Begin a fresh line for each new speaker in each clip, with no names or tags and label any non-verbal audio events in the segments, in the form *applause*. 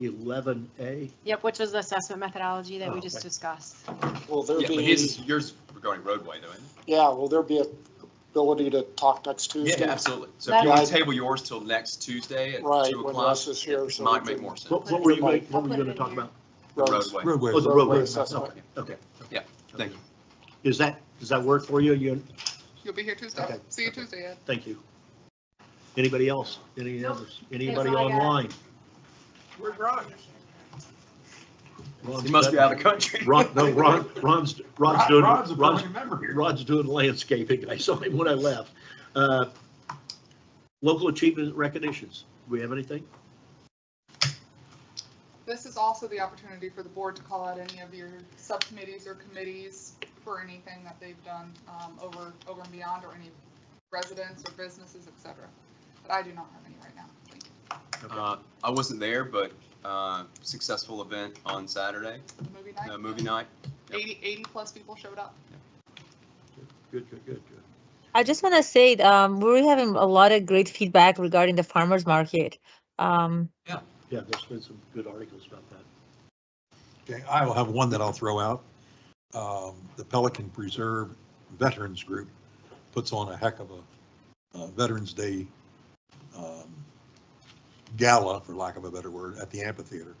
eleven A?
Yep, which was the assessment methodology that we
Oh,
just
okay.
discussed.
Will there
Yeah, but
be,
his, yours regarding roadway, though, isn't it?
yeah, will there be a ability to talk next Tuesday?
Yeah, absolutely. So if
Mm-hmm.
you
That-
want to table yours till next Tuesday at
Right,
two
when
o'clock,
Russ is here,
it
so
might
we
make
can-
more sense.
What, what were you, gonna- what were you
I'll put
gonna
it
talk
in here.
about?
Roads.
Roadway.
Roadway.
Oh, the roadway,
Roadway
oh,
assessment.
okay.
Yeah, thank you.
Is that, does that work for you? You,
You'll be here Tuesday.
Okay.
See you Tuesday, Ed.
thank you. Anybody else? Any others? Anybody
all I got.
online?
Where's Rogers?
Ron's
He must be
got-
out of
*laughs*
the country.
Ron, no, Ron, Ron's, Ron's doing,
Rod's a
Ron's,
permanent member here.
Rod's doing landscaping. I saw him when I left. Uh, Local achievement recognitions. Do we have anything?
This is also the opportunity for the board to call out any of your subcommittees or committees for anything that they've done um, over, over and beyond, or any residents or businesses, et cetera. But I do not have any right now. Thank you.
Uh, I wasn't there, but uh, successful event on Saturday,
The Movie
uh,
night,
movie night. Yep.
80, 80 plus people showed up.
Good, good, good, good.
I just want to say, um, we're having a lot of great feedback regarding the farmer's market. Um,
Yeah, there's been some good articles about that.
Okay, I will have one that I'll throw out. Um, The Pelican Preserve Veterans Group puts on a heck of a uh, Veterans Day um, gala, for lack of a better word, at the amphitheater.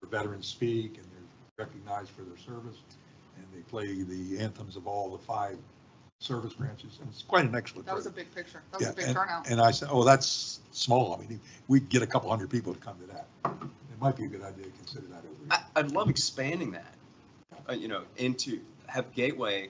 where Veterans speak and they're recognized for their service, and they play the anthems of all the five service branches, and it's quite an excellent.
That was a
program.
big picture. That was a
Yeah,
big turnout.
And I said, oh, that's small. I mean, we'd get a couple hundred people to come to that. It might be a good idea to consider that over.
I, I'd love expanding that, uh, you know, into, have Gateway,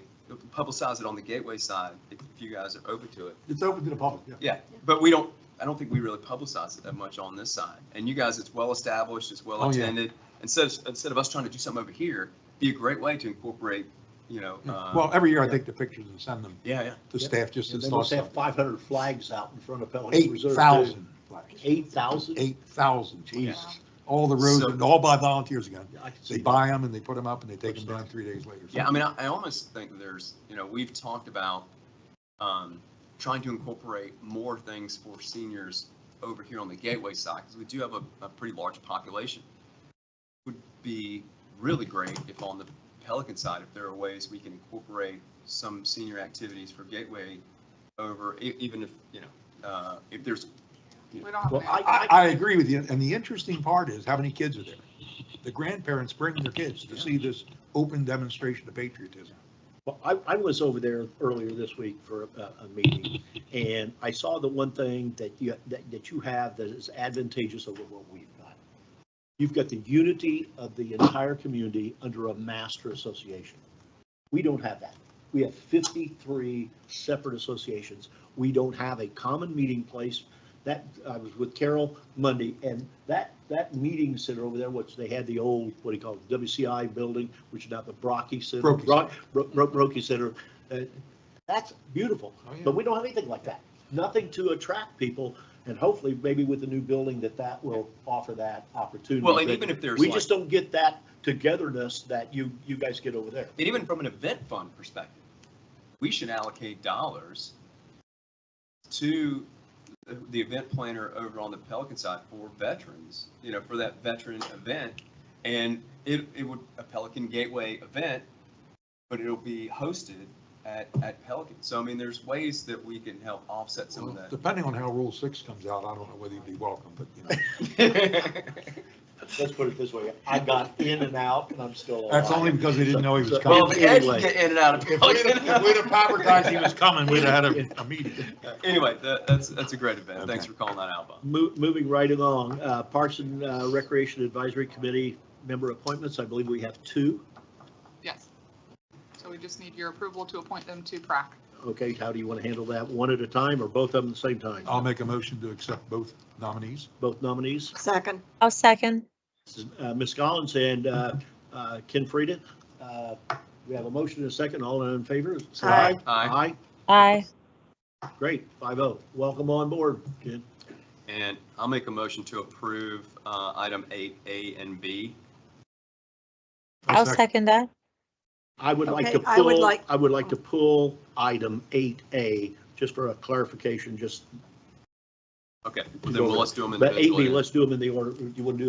publicize it on the Gateway side, if you guys are open to it.
It's open to the public, yeah.
Yeah, but we don't, I don't think we really publicize it that much on this side. And you guys, it's well-established, it's
Oh, yeah.
well-attended. Instead, of- instead of us trying to do something over here, be a great way to incorporate, you know. uh,
Well, every year I take the pictures and send them
Yeah, yeah.
to
Yeah.
staff just
And
as
they must
thoughts.
have five hundred flags out in front of Pelican
Eight
Reserve.
thousand flags,
Eight thousand?
eight thousand,
Jesus.
Wow.
all the roads,
So-
and all by volunteers again.
Yeah, I can see
They
that.
buy them and they put them up and they take them down three days later.
Yeah, I mean, I, I almost think that there's, you know, we've talked about, um, trying to incorporate more things for seniors over here on the Gateway side, because we do have a, a pretty large population. Would be really great if on the Pelican side, if there are ways we can incorporate some senior activities for Gateway over, e- even if, you know, uh, if there's,
We don't have.
Well,
an
I-
I, I agree with you, and the interesting part is how many kids are there. The grandparents bring their kids to see this open demonstration of patriotism.
Well, I, I was over there earlier this week for a, a meeting, and I saw the one thing that you, that, that you have that is advantageous over what we've got. You've got the unity of the entire community under a master association. We don't have that. We have fifty-three separate associations. We don't have a common meeting place. That, I was with Carol Monday, and that, that meeting center over there, which they had the old, what do you call it, WCI building, which is now the Brocky Center.
Brockie
Brock- Bro- Bro- Brokey Center. uh, That's beautiful,
Oh,
but we don't have anything like that. Nothing to attract people, and hopefully, maybe with the new building, that that will offer that opportunity.
well, and
But
even if there's
We
like-
just don't get that togetherness that you, you guys get over there.
And even from an event fund perspective, we should allocate dollars to the- the event planner over on the Pelican side for veterans, you know, for that veteran event. And it, it would, a Pelican Gateway event, but it'll be hosted at, at Pelican. So I mean, there's ways that we can help offset some of
*laughs* Well, Depending on how Rule Six comes out, I don't know whether you'd be welcome, but you know.
*laughs* that.
Let's put it this way, I got in and out, and I'm still alive.
That's only because they didn't know he was
So-
coming.
Well, Oh,
but
*laughs* the Ed
anyway.
can get in and out of
If we'd
Pelican.
have- if we'd have advertised he was coming, we'd have had a, a meeting.
*laughs* Anyway, that, that's, that's a great event. Thanks
Okay.
for calling that out, Bob.
Mo- Moving right along, uh, Parks and uh, Recreation Advisory Committee member appointments, I believe we have two.
Yes. So we just need your approval to appoint them to PrAC.
Okay, how do you want to handle that? One at a time or both of them at the same time?
I'll make a motion to accept both nominees.
Both nominees?
Second.
I'll second.
Uh, Ms. Collins and uh, uh, Ken Frieden. Uh, We have a motion and a second. All in favor? say
Aye.
Aye.
Aye.
Aye. Great, five oh. Welcome on board, Ken.
And I'll make a motion to approve uh, item eight A and B.
I'll second that.
I would like to
Okay, I would
pull,
like-
I would like to pull item eight A, just for a clarification, just,
Okay, then we'll let's do them
but eight
individually.
B, let's do them in the order. You want to do